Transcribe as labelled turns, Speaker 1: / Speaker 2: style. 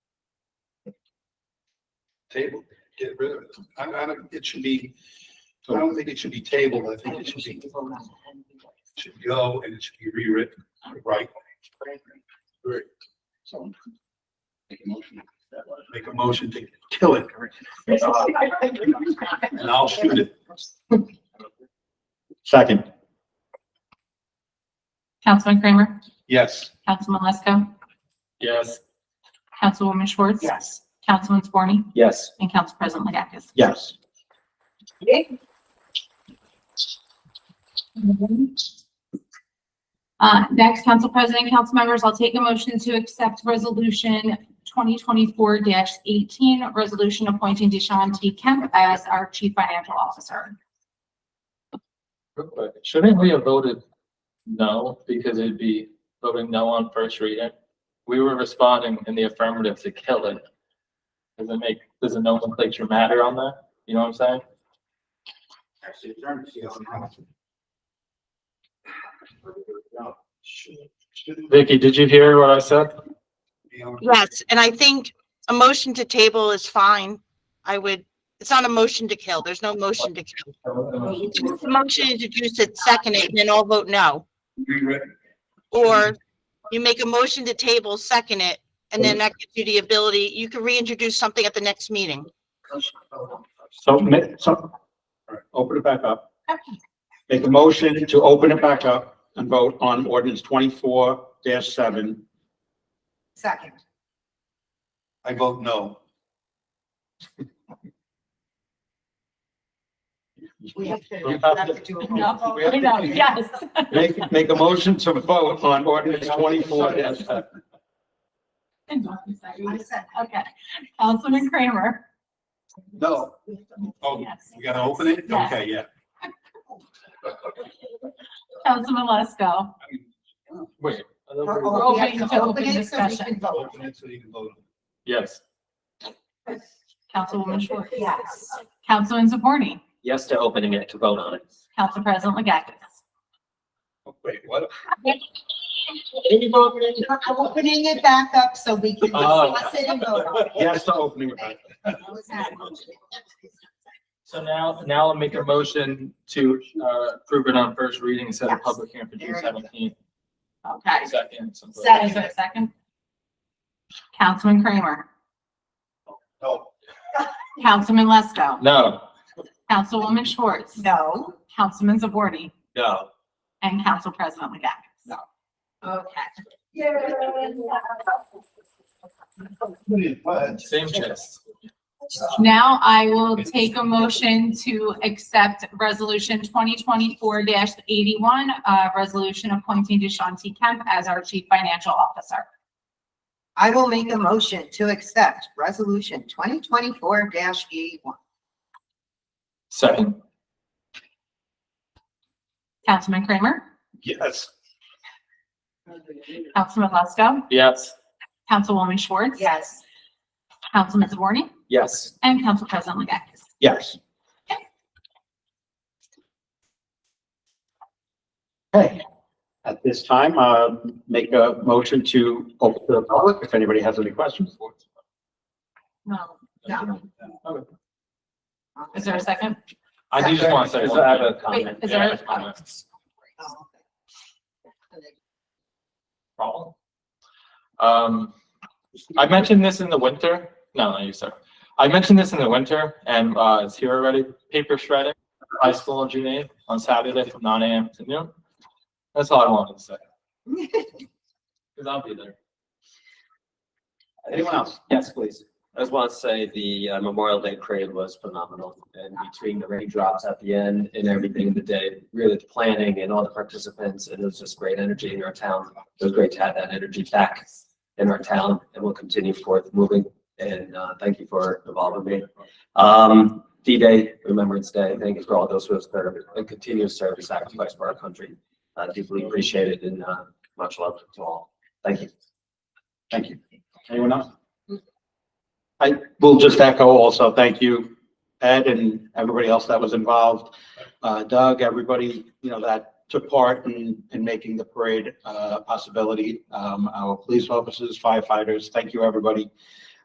Speaker 1: table, get rid of it. I, I don't, it should be, I don't think it should be tabled. I think it should be, should go and it should be rewritten, right? Right. So. Make a motion. Make a motion to kill it and I'll shoot it.
Speaker 2: Second,
Speaker 3: Councilman Kramer?
Speaker 1: Yes.
Speaker 3: Councilman Lesko?
Speaker 4: Yes.
Speaker 3: Councilwoman Schwartz?
Speaker 5: Yes.
Speaker 3: Councilman Zaborni?
Speaker 2: yes,
Speaker 3: And Council President Legakis?
Speaker 2: yes.
Speaker 3: Uh, next, Council President, council members, I'll take a motion to accept Resolution twenty twenty-four eighteen, resolution appointing Deshaun T. Kemp as our Chief Financial Officer.
Speaker 4: Shouldn't we have voted no, because it'd be voting no on first reading? We were responding in the affirmative to kill it. Does it make, does the nomenclature matter on that? You know what I'm saying? Vicky, did you hear what I said?
Speaker 6: Yes, and I think a motion to table is fine. I would, it's not a motion to kill. There's no motion to kill. It's a motion to introduce it, second it, and then all vote no.
Speaker 1: Rewritten.
Speaker 6: Or you make a motion to table, second it, and then that gives you the ability, you can reintroduce something at the next meeting.
Speaker 2: So, ma- so, all right, open it back up. Make a motion to open it back up and vote on ordinance twenty-four seven.
Speaker 5: Second.
Speaker 1: I vote no.
Speaker 5: We have to,
Speaker 2: You
Speaker 5: we
Speaker 2: have
Speaker 5: have to do a roll
Speaker 3: No,
Speaker 5: call.
Speaker 3: no, yes.
Speaker 2: Make, make a motion to vote on ordinance twenty-four seven.
Speaker 5: I said,
Speaker 3: Okay, Councilman Kramer?
Speaker 1: No. Oh,
Speaker 3: Yes.
Speaker 1: we gotta open it?
Speaker 3: Yes.
Speaker 1: Okay, yeah.
Speaker 3: Councilman Lesko?
Speaker 4: Wait. I thought we were-
Speaker 5: Oh, we have to open it so we
Speaker 3: Discussion.
Speaker 5: can vote.
Speaker 1: Open it so you can vote.
Speaker 4: Yes.
Speaker 3: Councilwoman Schwartz?
Speaker 5: Yes.
Speaker 3: Councilman Zaborni?
Speaker 7: Yes to opening it to vote on it.
Speaker 3: Council President Legakis?
Speaker 1: Wait, what?
Speaker 5: I'm opening it back up so we can
Speaker 4: Oh.
Speaker 5: discuss it and vote on it.
Speaker 2: Yes to opening it back.
Speaker 5: That was that motion.
Speaker 4: So now, now I'll make a motion to, uh, approve it on first reading instead of
Speaker 5: Yes.
Speaker 4: public hearing for June seventeenth.
Speaker 3: Okay.
Speaker 4: Second. something.
Speaker 5: Second.
Speaker 3: Is there a second? Councilman Kramer?
Speaker 1: No.
Speaker 3: Councilman Lesko?
Speaker 4: No.
Speaker 3: Councilwoman Schwartz?
Speaker 5: No.
Speaker 3: Councilman Zaborni?
Speaker 7: No.
Speaker 3: And Council President Legakis?
Speaker 5: No. Okay.
Speaker 1: What?
Speaker 4: Same chest.
Speaker 3: Now I will take a motion to accept Resolution twenty twenty-four eighty-one, uh, resolution appointing Deshaun T. Kemp as our Chief Financial Officer.
Speaker 5: I will make a motion to accept resolution twenty twenty-four dash eighty-one.
Speaker 4: Second.
Speaker 3: Councilman Kramer?
Speaker 1: Yes.
Speaker 3: Councilman Lesko?
Speaker 4: Yes.
Speaker 3: Councilwoman Schwartz?
Speaker 5: Yes.
Speaker 3: Councilman Zaborni?
Speaker 7: Yes.
Speaker 3: And Council President Legakis?
Speaker 2: Yes. Okay. At this time, uh, make a motion to open to the public if anybody has any questions.
Speaker 3: No.
Speaker 5: No.
Speaker 3: Is there a second?
Speaker 4: I do just want to say.
Speaker 7: Because I have a
Speaker 4: one thing.
Speaker 7: comment.
Speaker 3: Wait, is
Speaker 4: Yeah, I
Speaker 3: there
Speaker 4: have a comment.
Speaker 5: Oh, okay.
Speaker 4: problem. Um, I mentioned this in the winter, no, not you, sir. I mentioned this in the winter and, uh, it's here already, paper shredding, high school on June eighth, on Saturday from nine AM to noon. That's all I wanted to say. Cause I'll be there.
Speaker 2: Anyone else?
Speaker 7: Yes, please. I just want to say the uh, Memorial Day parade was phenomenal and between the raindrops at the end and everything in the day, really the planning and all the participants, and it was just great energy in our town. It was great to have that energy back in our town and we'll continue forth moving and uh, thank you for involving me. Um, D-Day, Remembrance Day, thank you for all those who have served and continue to serve and sacrifice for our country. Uh, Deeply appreciated and uh, much love to all. Thank you.
Speaker 2: Thank you. Anyone else? I will just echo also, thank you, Ed and everybody else that was involved. Uh, Doug, everybody, you know, that took part in, in making the parade, uh, possibility. Um, our police officers, firefighters, thank you, everybody.